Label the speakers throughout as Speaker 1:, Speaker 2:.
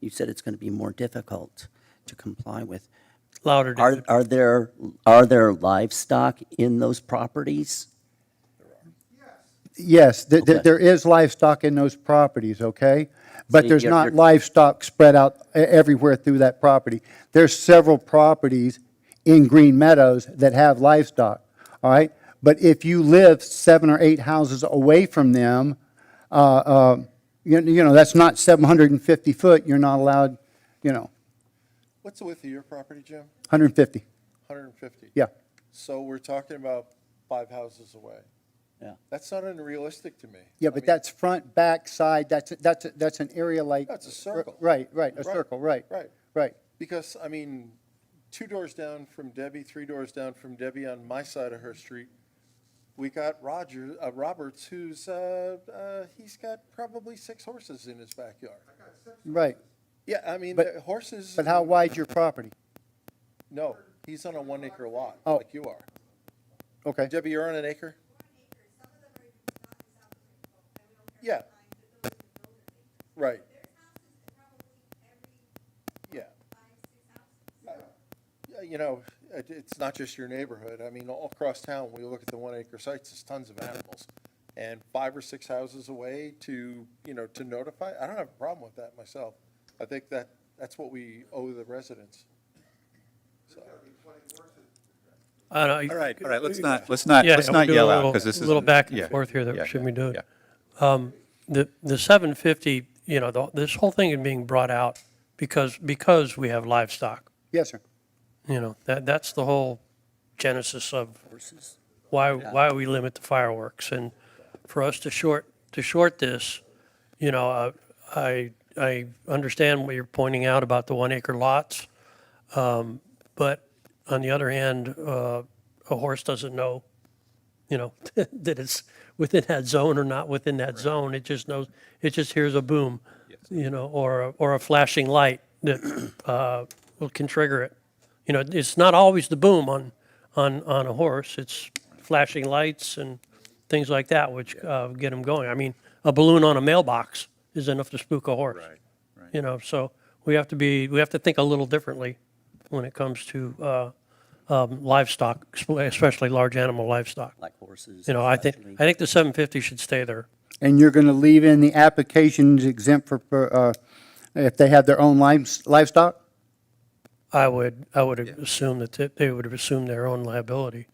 Speaker 1: you said it's going to be more difficult to comply with.
Speaker 2: Louder.
Speaker 1: Are,
Speaker 2: David.
Speaker 1: are there, are there livestock in those properties?
Speaker 3: Yes, th- th-
Speaker 1: Okay.
Speaker 3: there is livestock in those properties, okay?
Speaker 1: So
Speaker 3: But there's
Speaker 1: you're-
Speaker 3: not
Speaker 1: you're-
Speaker 3: livestock spread out e- everywhere through that property. There's several properties in Green Meadows that have livestock, all right? But if you live seven or eight houses away from them, uh, uh, you you know, that's not 750 foot, you're not allowed, you know,
Speaker 4: What's the width of your property, Jim?
Speaker 3: 150,
Speaker 4: 150?
Speaker 3: yeah.
Speaker 4: So we're talking about five houses away.
Speaker 1: Yeah.
Speaker 4: That's not unrealistic to me.
Speaker 3: Yeah,
Speaker 4: I
Speaker 3: but
Speaker 4: mean,
Speaker 3: that's front, back, side, that's, that's, that's an area like.
Speaker 4: That's a circle.
Speaker 3: Right, right, a
Speaker 4: Right,
Speaker 3: circle, right.
Speaker 4: right.
Speaker 3: Right.
Speaker 4: Because, I mean, two doors down from Debbie, three doors down from Debbie on my side of her street, we got Roger, uh, Roberts, who's, uh, uh, he's got probably six horses in his backyard.
Speaker 3: Right,
Speaker 4: Yeah, I mean,
Speaker 3: But-
Speaker 4: the horses,
Speaker 3: but how wide's your property?
Speaker 4: no, he's on a one acre lot,
Speaker 3: Oh.
Speaker 4: like you are.
Speaker 3: Okay,
Speaker 4: Debbie, you're on an acre? Yeah. Right. Yeah. Yeah, You know, it, it's not just your neighborhood. I mean, all across town, when you look at the one acre sites, there's tons of animals. And five or six houses away to, you know, to notify, I don't have a problem with that myself. I think that, that's what we owe the residents.
Speaker 2: I don't-
Speaker 5: All right, all right, let's not, let's not,
Speaker 2: Yeah,
Speaker 5: let's
Speaker 2: yeah,
Speaker 5: not
Speaker 2: we'll do a
Speaker 5: yell out,
Speaker 2: little-
Speaker 5: because this is.
Speaker 2: little back and forth here that we shouldn't be doing. The, the 750, you know, the- this whole thing is being brought out because, because we have livestock.
Speaker 3: yes, sir.
Speaker 2: You know, that, that's the whole genesis of why, why we limit the fireworks. And for us to short, to short this, you know, uh, I, I understand what you're pointing out about the one acre lots. Um, But on the other hand, uh, a horse doesn't know, you know, that it's within that zone or not within that zone. It just knows, it just hears a boom, you know, or, a- or a flashing light that uh, will- can trigger it. You know, it's not always the boom on, on, on a horse. It's flashing lights and things like that, which uh, get them going. I mean, a balloon on a mailbox is enough to spook a horse. Right, right. You know, so we have to be, we have to think a little differently when it comes to uh, um, livestock, especially large animal livestock.
Speaker 1: Like horses?
Speaker 2: You know, I think,
Speaker 1: especially?
Speaker 2: I think the 750 should stay there.
Speaker 3: And you're going to leave in the applications exempt for- for, uh, if they have their own lives- livestock?
Speaker 2: I would, I would assume that they- they would assume their own liability.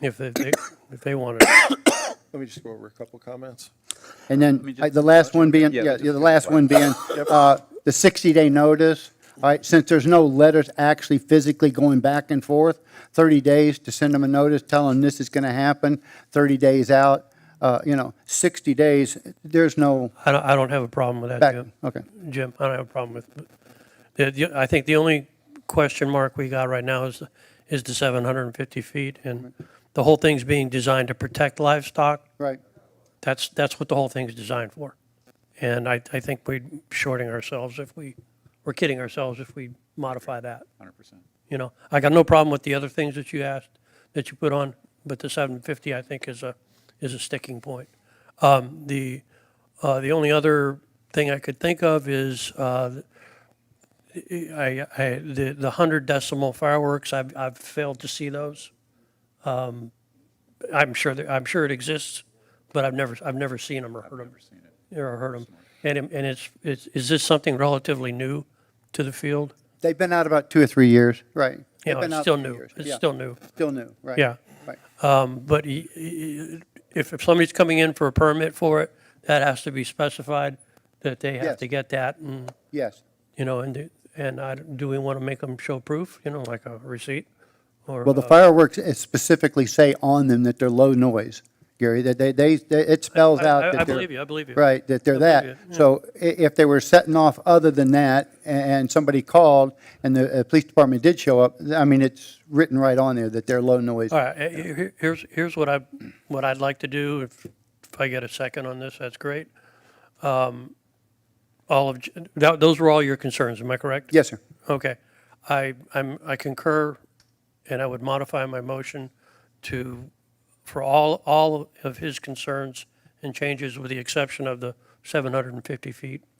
Speaker 2: Yeah. If they- they, if they wanted.
Speaker 4: Let me just go over a couple comments.
Speaker 3: And then
Speaker 5: just-
Speaker 3: uh, the last one being,
Speaker 5: Yeah,
Speaker 3: yeah,
Speaker 5: just
Speaker 3: yeah, the
Speaker 5: give
Speaker 3: last one
Speaker 5: one.
Speaker 3: being uh, the 60-day notice, all right? Since there's no letters actually physically going back and forth, 30 days to send them a notice, tell them this is going to happen, 30 days out, uh, you know, 60 days, there's no
Speaker 2: I don't, I don't have a problem with that,
Speaker 3: back,
Speaker 2: Jim.
Speaker 3: okay.
Speaker 2: Jim, I don't have a problem with, the- the- I think the only question mark we got right now is, is the 750 feet. And the whole thing's being designed to protect livestock.
Speaker 3: Right.
Speaker 2: That's, that's what the whole thing's designed for. And I, I think we're shorting ourselves if we, we're kidding ourselves if we modify that.
Speaker 5: Hundred percent.
Speaker 2: You know, I got no problem with the other things that you asked, that you put on, but the 750, I think, is a, is a sticking point. Um, The, uh, the only other thing I could think of is, uh, I, I, the, the 100 decimal fireworks, I've, I've failed to see those. Um, I'm sure, that- I'm sure it exists, but I've never, I've never seen them or heard them. Or heard 'em. And, it- and it's, it's, is this something relatively new to the field?
Speaker 3: They've been out about two or three years, right?
Speaker 2: You
Speaker 3: They've
Speaker 2: know,
Speaker 3: been
Speaker 2: it's
Speaker 3: out
Speaker 2: still
Speaker 3: three
Speaker 2: new.
Speaker 3: years,
Speaker 2: It's
Speaker 3: yeah.
Speaker 2: still new.
Speaker 3: Still new, right?
Speaker 2: Yeah.
Speaker 3: Right.
Speaker 2: Um, But y- y- if, if somebody's coming in for a permit for it, that has to be specified, that they have
Speaker 3: Yes.
Speaker 2: to get that, and,
Speaker 3: Yes.
Speaker 2: you know, and, do- and I, do we want to make them show proof, you know, like a receipt? Or,
Speaker 3: Well, the
Speaker 2: uh,
Speaker 3: fireworks is specifically say on them that they're low noise, Gary, that they, they, they- it spells
Speaker 2: I-
Speaker 3: out
Speaker 2: I-
Speaker 3: that they're.
Speaker 2: I believe you, I believe you.
Speaker 3: Right, that they're
Speaker 2: I
Speaker 3: that.
Speaker 2: believe you, yeah.
Speaker 3: So i- if they were setting off other than that, a- and somebody called, and the uh, police department did show up, I mean, it's written right on there that they're low noise.
Speaker 2: All right, eh, eh, here- here's, here's what I, what I'd like to do, if, if I get a second on this, that's great. Um, All of, J- that, those were all your concerns, am I correct?
Speaker 3: Yes, sir.
Speaker 2: Okay, I, I'm, I concur, and I would modify my motion to, for all, all of his concerns and changes with the exception of the 750 feet